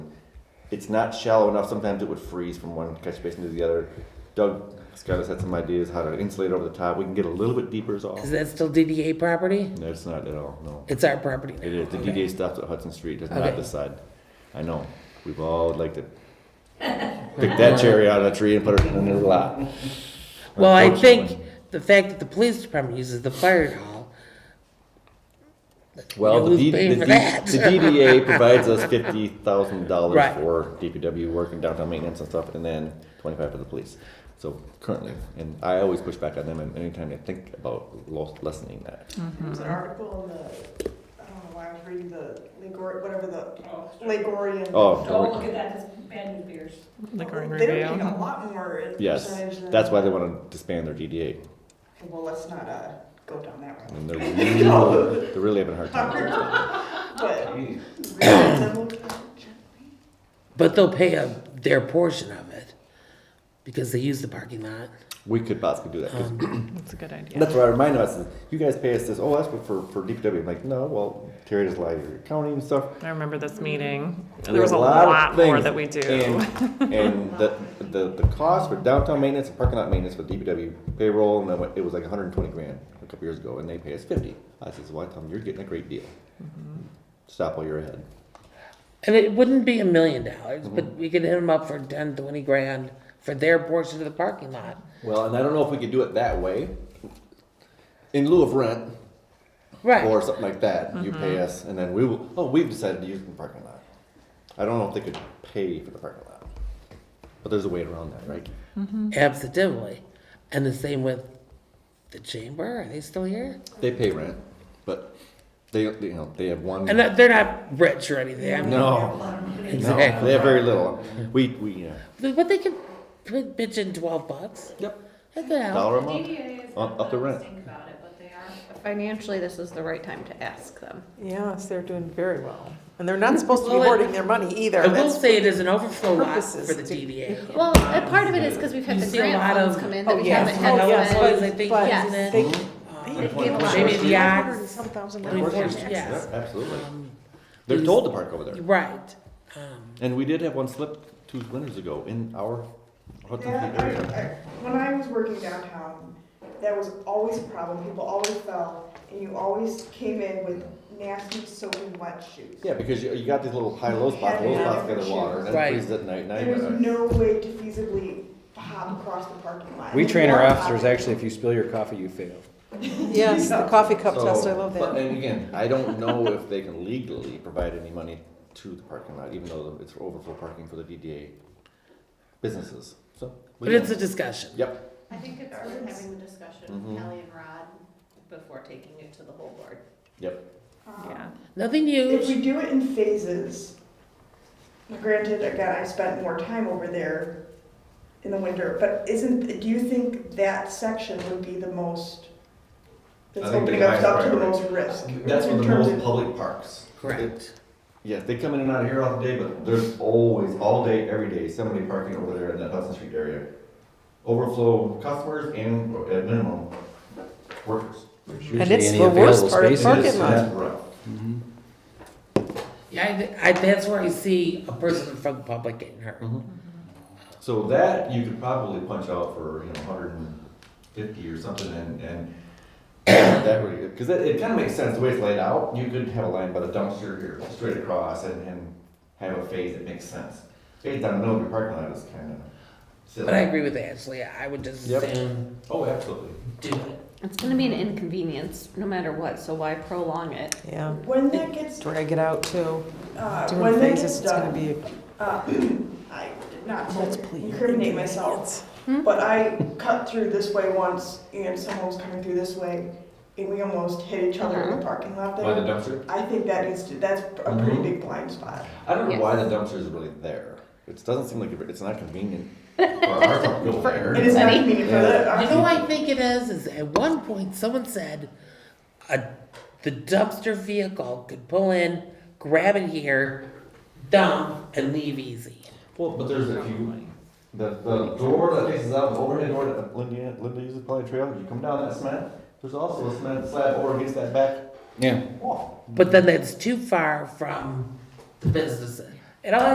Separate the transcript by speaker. Speaker 1: it's not shallow enough. Sometimes it would freeze from one catch basin to the other. Doug Scott had some ideas how to insulate over the top. We can get a little bit deeper is all.
Speaker 2: Is that still DDA property?
Speaker 1: No, it's not at all, no.
Speaker 2: It's our property.
Speaker 1: It is, the
Speaker 2: Okay.
Speaker 1: DDA stops at Hudson Street, it's not
Speaker 2: Okay.
Speaker 1: this side. I know, we've all liked to pick that cherry out of a tree and put it in another lot.
Speaker 2: Well, I think
Speaker 1: Unfortunately.
Speaker 2: the fact that the police department uses the fire hall,
Speaker 1: Well, the
Speaker 2: who's
Speaker 1: D-
Speaker 2: paying
Speaker 1: the
Speaker 2: for
Speaker 1: D-
Speaker 2: that?
Speaker 1: the DDA provides us fifty thousand dollars
Speaker 2: Right.
Speaker 1: for DPW work and downtown maintenance and stuff, and then twenty-five for the police. So currently, and I always push back on them and anytime I think about lo- lessening that.
Speaker 3: There was an
Speaker 2: Uh-huh.
Speaker 3: article in the, I don't know why I was reading the Lake Or, whatever the, Lake Orion.
Speaker 1: Oh, don't
Speaker 4: Don't look
Speaker 1: worry.
Speaker 4: at that, that's bad news bears.
Speaker 3: They
Speaker 5: Like our
Speaker 3: were
Speaker 5: review.
Speaker 3: paying a lot more in
Speaker 1: Yes,
Speaker 3: percentage than.
Speaker 1: that's why they wanna disband their DDA,
Speaker 3: Okay, Well, let's not, uh, go down that road.
Speaker 1: and they're really, they're really having a hard time. with it.
Speaker 2: Oh,
Speaker 3: But. Reasonable.
Speaker 2: but they'll pay a, their portion of it because they use the parking lot.
Speaker 1: We could possibly do that,
Speaker 2: Um,
Speaker 1: 'cause
Speaker 5: That's a good idea.
Speaker 1: That's what I remind us. Is you guys pay us this. Oh, that's for for DPW. I'm like, no. Well, Terry does a lot of your accounting and stuff.
Speaker 5: I remember this meeting.
Speaker 1: We
Speaker 5: There was a
Speaker 1: have
Speaker 5: lot
Speaker 1: of
Speaker 5: more
Speaker 1: things.
Speaker 5: that we do.
Speaker 1: And, and the, the the cost for downtown maintenance and parking lot maintenance for DPW payroll, and then what- it was like 120 grand a couple years ago, and they pay us 50. I says, well, I tell them you're getting a great deal.
Speaker 5: Mm-hmm.
Speaker 1: Stop while you're ahead.
Speaker 2: And it wouldn't be a million dollars,
Speaker 1: Mm-hmm.
Speaker 2: but we could hit them up for ten, twenty grand for their portion of the parking lot.
Speaker 1: Well, and I don't know if we could do it that way. In lieu of rent or
Speaker 2: Right,
Speaker 1: something like that, you pay
Speaker 5: Mm-hmm.
Speaker 1: us, and then we will. Oh, we've decided to use the parking lot. I don't know if they could pay for the parking lot, but there's a way around that, right?
Speaker 2: absolutely. And the same with the chamber, are they still here?
Speaker 1: They pay rent, but they you know they have one.
Speaker 2: And that- they're not rich or anything. I mean,
Speaker 1: no, no, they have
Speaker 2: Exactly.
Speaker 1: very little. We we uh,
Speaker 2: But they could put bitch in twelve bucks.
Speaker 1: yep
Speaker 2: What the hell?
Speaker 1: dollar a month.
Speaker 4: DDA is
Speaker 1: Up-
Speaker 4: not
Speaker 1: up the
Speaker 4: the
Speaker 1: rent.
Speaker 4: best thing about it, but they are.
Speaker 6: Financially, this is the right time to ask them.
Speaker 3: Yes, they're doing very well. And they're not supposed
Speaker 2: Well, it-
Speaker 3: their money either.
Speaker 2: I will
Speaker 3: That's-
Speaker 2: say it is an overflow lot
Speaker 3: purposes
Speaker 2: for the
Speaker 3: to-
Speaker 2: DDA.
Speaker 6: Well, a part of it is because we've had
Speaker 2: You
Speaker 6: the
Speaker 2: see a lot
Speaker 6: grant funds
Speaker 2: of-
Speaker 6: come in
Speaker 3: Oh,
Speaker 6: that we
Speaker 3: yes.
Speaker 6: haven't had
Speaker 3: Oh, yes,
Speaker 6: spent.
Speaker 3: but-
Speaker 2: I think,
Speaker 3: but
Speaker 2: isn't it?
Speaker 3: they-
Speaker 2: Um,
Speaker 3: They gave us
Speaker 2: Maybe the
Speaker 3: $100
Speaker 2: odds.
Speaker 3: and some thousand
Speaker 2: I mean,
Speaker 3: dollars.
Speaker 2: fortunately, yes.
Speaker 1: Yeah, absolutely.
Speaker 2: Um,
Speaker 1: They're
Speaker 2: these-
Speaker 1: told to park over there,
Speaker 2: Right. Um,
Speaker 1: and we did have one slip two winters ago in our Hudson
Speaker 3: Yeah,
Speaker 1: Creek area.
Speaker 3: I, I, when I was working downtown, that was always a problem, people always fell, and you always came in with nasty soaking wet shoes.
Speaker 1: Yeah, because you, you got these little high low spots, low
Speaker 3: Yeah.
Speaker 1: spots get the water, and uh, then
Speaker 2: Right.
Speaker 1: it freezes at night. Now you
Speaker 3: There's
Speaker 1: gotta-
Speaker 3: no way to feasibly hop across the parking lot.
Speaker 7: We train our officers, actually, if you spill your coffee, you fail.
Speaker 8: Yes, the coffee cup
Speaker 1: So,
Speaker 8: test, I love
Speaker 1: But
Speaker 8: that.
Speaker 1: and again, I don't know if they can legally provide any money to the parking lot, even though it's overflow parking for the DDA businesses, so. we
Speaker 2: But it's a
Speaker 1: don't-
Speaker 2: discussion.
Speaker 1: Yep,
Speaker 4: I think it's worth having the discussion
Speaker 1: Mhm.
Speaker 6: Mm-hmm.
Speaker 4: with Kelly and Rod before taking it to the whole board.
Speaker 1: yep,
Speaker 3: Um,
Speaker 5: Yeah.
Speaker 2: Nothing
Speaker 3: If we
Speaker 2: huge.
Speaker 3: do it in phases, granted, again, I spent more time over there in the winter, but isn't, do you think that section would be the most, that's
Speaker 1: I think
Speaker 3: opening
Speaker 1: the
Speaker 3: us up to the
Speaker 1: highest
Speaker 3: most risk?
Speaker 1: that's
Speaker 3: in
Speaker 1: one of the
Speaker 3: terms
Speaker 1: most
Speaker 3: of-
Speaker 1: public parks.
Speaker 2: Correct.
Speaker 1: Yeah, they come in and out of here all day, but there's always, all day, every day, somebody parking over there in that Hudson Street area. Overflow customers and, at minimum, workers.
Speaker 8: And it's the worst part of parking lot.
Speaker 1: That's rough.
Speaker 2: Yeah, I, th- I, that's where I see a person from the public getting hurt.
Speaker 1: So that you could probably punch out for, you know, hundred and fifty or something and, and that really, because it, it kind of makes sense the way it's laid out. You could have a line by the dumpster here, straight across and, and have a phase that makes sense. Phase down the middle of your parking lot is kind of
Speaker 2: But I
Speaker 1: silly.
Speaker 2: agree with Ashley. I would just
Speaker 1: Yep.
Speaker 2: assume
Speaker 1: Oh, absolutely.
Speaker 2: do it.
Speaker 6: It's gonna be an inconvenience, no matter what, so why prolong it?
Speaker 8: Yeah,
Speaker 3: When that gets,
Speaker 8: drag it out too.
Speaker 3: uh,
Speaker 8: Doing
Speaker 3: when that gets
Speaker 8: phases, it's gonna
Speaker 3: done,
Speaker 8: be
Speaker 3: uh, I did not
Speaker 8: Let's
Speaker 3: to
Speaker 8: please.
Speaker 3: incriminate myself, But I cut through this way once, and someone was coming through this way, and we almost hit each other in the parking lot
Speaker 1: Why the Mm-hmm.
Speaker 3: there.
Speaker 1: dumpster?
Speaker 3: I think that needs to, that's a pretty big blind spot.
Speaker 1: I don't know
Speaker 6: Yes.
Speaker 1: why the dumpster is really there. It doesn't seem like, it- it's not convenient for our people there.
Speaker 3: It is not convenient for the.
Speaker 2: You know, what I think it is, is at one point someone said, a, the dumpster vehicle could pull in, grab it here, dump, and leave easy.
Speaker 1: Well, but there's a few, the, the door that faces out, the overhead door that Linda, Linda uses probably trail, you come down that cement, there's also a cement slab over against that back
Speaker 7: Yeah.
Speaker 1: wall.
Speaker 2: But then that's too far from the businesses. And all